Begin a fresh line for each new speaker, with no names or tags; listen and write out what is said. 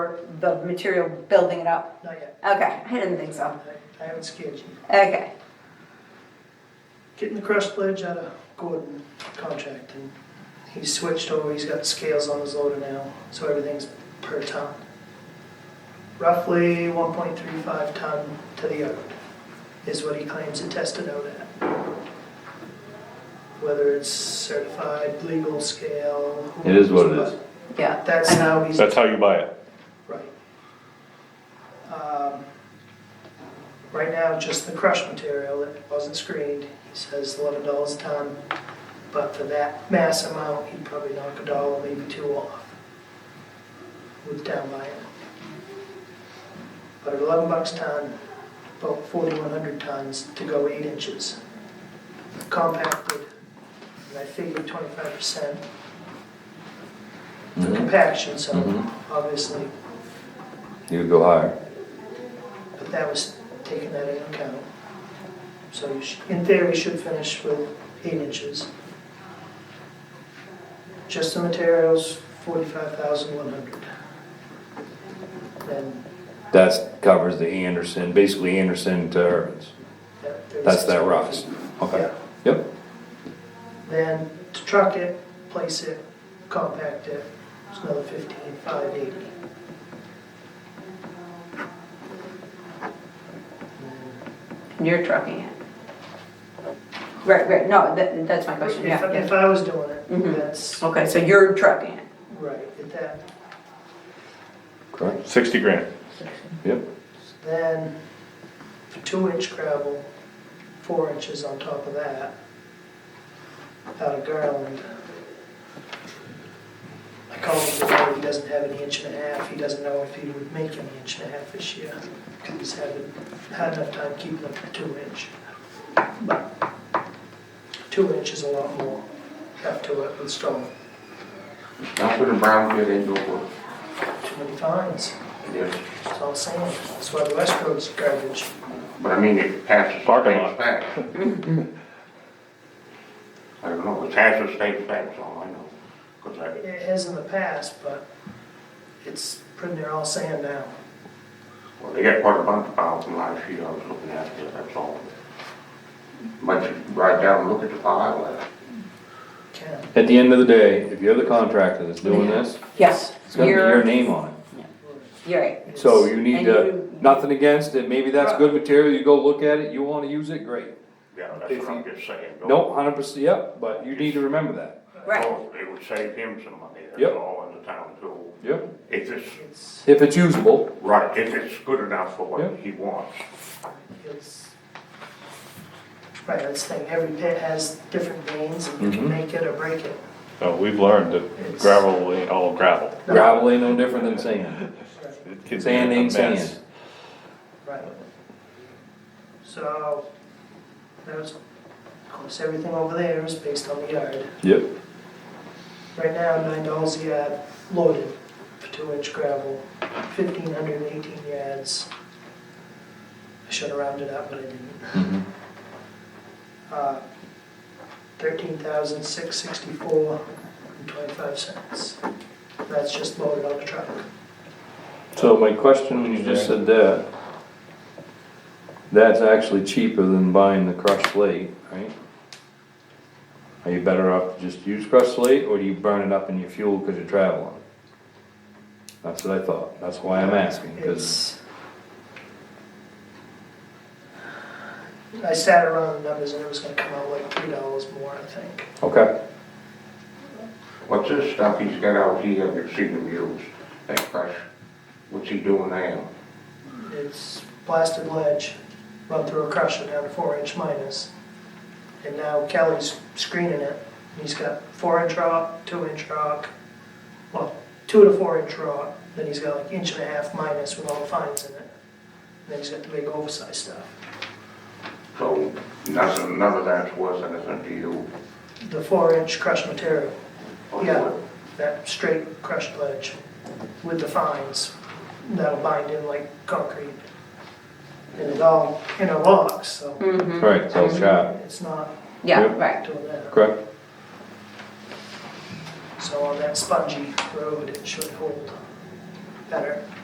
for the material building it up?
Not yet.
Okay, I didn't think so.
I I haven't scared you.
Okay,
Getting the crush ledge out of Gordon contract and he's switched over, he's got scales on his loader now, so everything's per ton. Roughly one point three five ton to the yard is what he claims it tested out at. Whether it's certified, legal scale. who
It is
knows,
what it is.
yeah.
but That's how he's
That's how you buy it.
Right. Um, Right now, just the crushed material that wasn't screened, he says eleven dollars a ton. But for that mass amount, he'd probably knock a dollar, maybe two off with down buying. But at eleven bucks a ton, about forty-one hundred tons to go eight inches. Compacted, and I figured twenty-five percent for
Mhm.
compaction, so
Mhm.
obviously
You would go higher.
But that was taking that into account. So you sh- in theory, you should finish with eight inches. Just the materials, forty-five thousand one hundred. Then,
That covers the Anderson, basically Anderson to Irvin's.
that
That's that
36,000.
rocks. Okay.
Yeah.
Yep.
Then to truck it, place it, compact it, it's another fifteen, five eighty.
And You're trucking it. Right, right, no, that, that's my question,
If,
yeah,
I-
yeah.
if I was doing it,
Mhm.
that's,
Okay, so you're trucking it.
right, at that
Correct.
Sixty grand.
Yep.
Then, two inch gravel, four inches on top of that, out of Garland. I called him today, he doesn't have an inch and a half, he doesn't know if he would make an inch and a half this year, because he's had, had enough time keeping up to two inch. But Two inch is a lot more, have to it with stone,
That's what a brownfield indoor work.
too many fines,
is.
it's all sand, that's why the West Road's garbage.
But I mean, it passes.
Parking
state
lot.
specs. I don't know, it passes state specs, all I know. 'Cause I-
It has in the past, but it's pretty near all sand now.
well, they got quite a bunch of piles from last year, I was looking at it, that's all. But you write down, and look at the pile, uh,
Can,
At the end of the day, if you're the contractor that's doing this,
Yes,
it's gonna be your
you're,
name on it.
you're right.
So you
And
need to,
you-
nothing against it, maybe that's good material, you go look at it, you wanna use it, great.
yeah, that's what I'm just saying. don't-
No, hundred percent, yep, but you need to remember that.
Right,
Oh, It would save him some money,
Yep.
that's all in the town too.
Yep.
If it's,
it's,
If it's usable,
right, if it's good enough for what
Yep.
he wants.
it's, right, that's the thing, every pit has different veins, and you can
Mhm.
make it or break it.
No, we've learned that gravel ain't all gravel.
gravel ain't no different than sand.
It can be
Sand
a
ain't
mess.
sand.
Right. So, there's, of course, everything over there is based on the yard.
Yep.
Right now, nine dollars a yard loaded for two inch gravel, fifteen hundred and eighteen yards. I should have rounded up, but I didn't.
Mm-hmm.
Uh, thirteen thousand six sixty-four and twenty-five cents. That's just loaded on the truck.
So my question, when you just said that, that's actually cheaper than buying the crushed slate, right? Are you better off to just use crushed slate, or do you burn it up in your fuel because you're traveling? That's what I thought, that's why I'm asking, because,
It's. I sat around the numbers and it was gonna come out like three dollars more, I think.
okay,
What's this stuff he's got out here, you've seen him use, that crush, what's he doing now?
It's blasted ledge, run through a crusher down to four inch minus. And now Kelly's screening it. He's got four inch rock, two inch rock, well, two to four inch rock, then he's got like inch and a half minus with all the fines in it. And then he's got the big oversized stuff.
So, nothing, none of that's worth anything to you.
The four inch crushed material,
or
yeah,
what?
that straight crushed ledge with the fines that'll bind in like concrete. And it all interlocks, so
right, so it's sharp,
it's not
Mm-hmm, yeah,
Yep.
right.
doing that.
correct?
So on that spongy road, it should hold better.